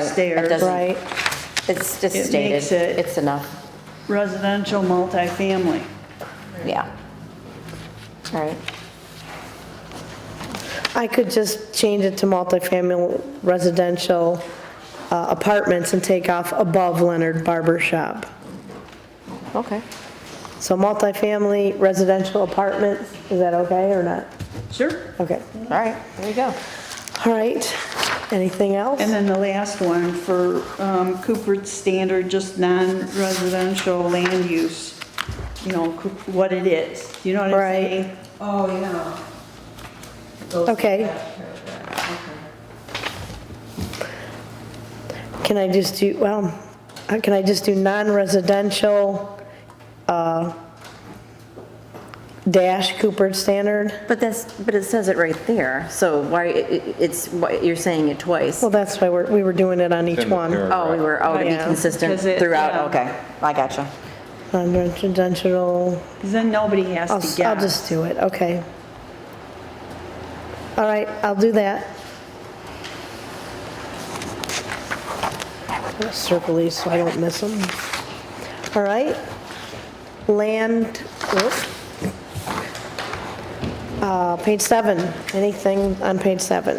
It stairs. doesn't- Right. It's just It stated, makes it- it's enough, Residential multifamily. yeah. All right, I could just change it to multifamily residential uh, apartments and take off above Leonard Barber Shop. okay. So multifamily residential apartments, is that okay or not? Sure. Okay, All right, there you go. all right. Anything else? And then the last one for um, Cooper's standard, just non-residential land use, you know, Coop- what it is, you know what I'm Right. saying? Oh, yeah. Those- Okay, that paragraph, okay. can I just do, well, uh, can I just do non-residential uh, dash Cooper standard? But that's, but it says it right there, so why, i- i- it's, why- you're saying it twice. Well, that's why we're, we were doing it on each In the one. paragraph. Oh, we were, oh, to be Yeah. consistent Because it- yeah. throughout, okay. Okay, I gotcha. Non-residential. 'Cause then nobody has I'll, to s- I'll guess. just do it, okay. All right, I'll do that. I'm gonna Circle these so I don't miss them. All right. Land, whoop. Uh, page seven, anything on page seven?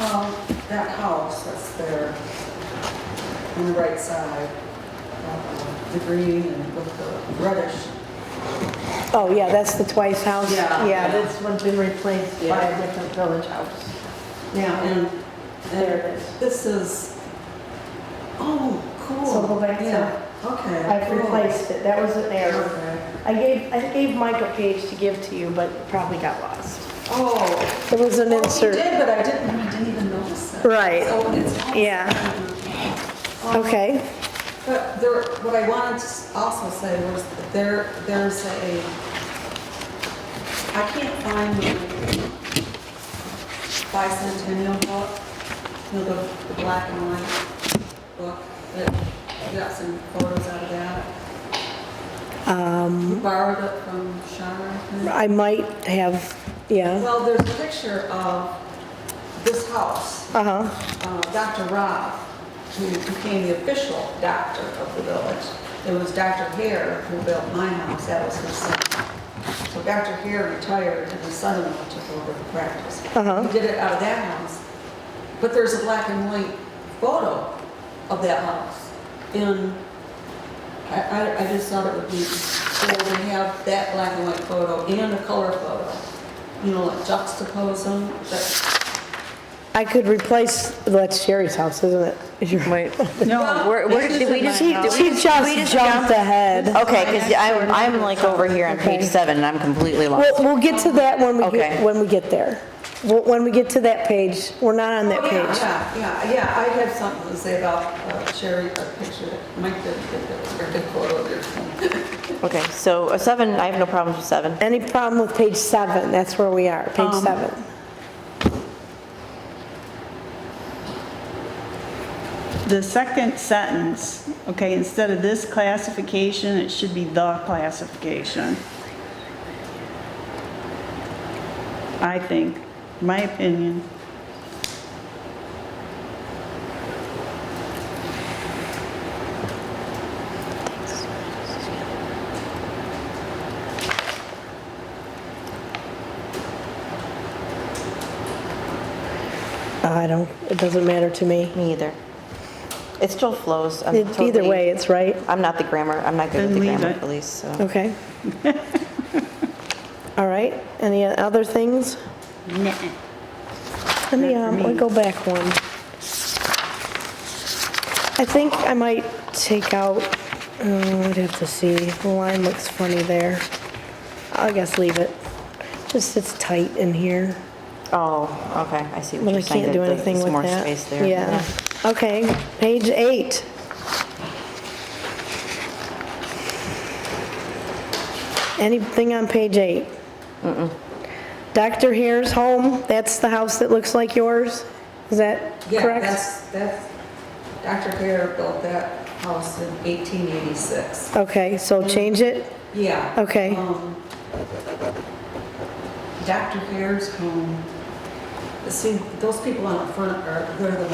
Um, that house that's there on the right side, um, the green and with the reddish. Oh, yeah, that's the twice house. Yeah. this one's been replaced by a different village house. Yeah. And, and this is, oh, cool. So go back to- Yeah, Okay. I've cool. replaced it, that was an error. Okay. I gave, I gave Mike a page to give to you, but probably got lost. Oh. It was an well, He insert. did, but I didn't, I didn't even notice it. Right. So it's. Yeah, okay. But there, what I wanted to s- also say was that there, there's a, I can't find the bicentennial book, you know, the, the black and white book, that, you got some photos out of that. Um. Borrowed it from Sharon. I think. I might have, yeah, Well, there's a picture of this house uh-huh, uh, Dr. Rob, who became the official doctor of the village. It was Dr. Hare who built my house, that was his son. So Dr. Hare retired and his son-in-law took over the practice. Uh-huh. He did it out of that house. But there's a black and white photo of that house in, I, I, I just thought it would be cool to have that black and white photo and a color photo. You know, like juxtapose them, that, I could replace, that's Sherry's house, isn't it? Is your- Wait, No, where, where this did we isn't just, She, did we she just- we just just jumped Oh. ahead. Okay, because I'm, I'm like over here on page Okay. seven, and I'm completely We'll, lost. we'll get to that when we get, Okay. when we get there. Wh- When we get to that page, we're not on that Oh, yeah, page. Yeah, yeah, yeah, I have something to say about uh, Sherry, a picture that Mike did, that was a very good photo of your Okay, so uh, seven, I have no problems with seven. Any problem with page seven? That's where we are, page Um, seven. The second sentence, okay, instead of this classification, it should be the classification. I think, my opinion. I don't, it doesn't matter to me. Me either. It still flows. I'm It- Either totally- way, it's right. I'm not the grammar, I'm not good Then with the leave grammar it. police, so. Okay. All right, any other things? Nah. Let me, Not for um, let me me. go back one. I think I might take out, oh, I'd have to see, the line looks funny there. I guess leave it. Just, it's tight in here, Oh, okay, I see what but I you're saying. can't do that the- anything there's with that. more space there. Yeah, okay, page eight. Anything on page eight? Dr. Hare's home, that's the house that looks like yours? Is that Yeah, correct? that's, that's, Dr. Hare built that house in 1886. Okay, so change it? Yeah. Okay. um, Dr. Hare's home, see, those people on the front are, they're the